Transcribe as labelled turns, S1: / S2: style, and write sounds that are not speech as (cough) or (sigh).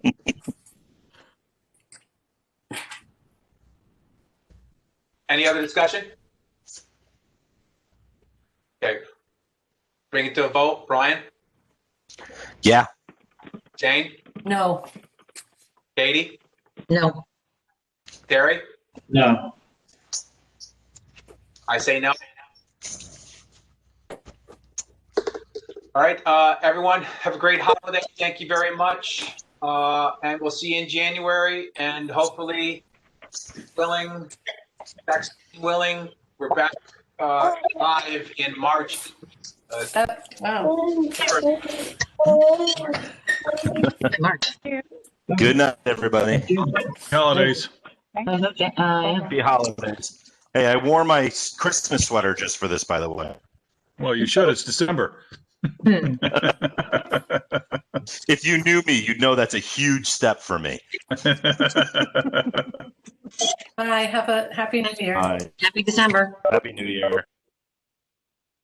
S1: Any other discussion? Okay. Bring it to a vote. Brian?
S2: Yeah.
S1: Jane?
S3: No,
S1: Katie?
S4: No,
S1: Terry?
S5: No,
S1: I say no. All right, uh, everyone, have a great holiday. Thank you very much. Uh, and we'll see you in January and hopefully willing, vaccine willing, we're back, uh, live in March. Uh,
S3: wow.
S4: March.
S2: Good night, everybody.
S6: Holidays.
S4: Okay, uh, yeah.
S2: Happy holidays. Hey, I wore my Christmas sweater just for this, by the way.
S6: Well, you should. It's December. (laughs)
S4: Hmm.
S2: If you knew me, you'd know that's a huge step for me.
S3: Bye, have a happy new year.
S2: All right.
S4: Happy December.
S2: Happy New Year.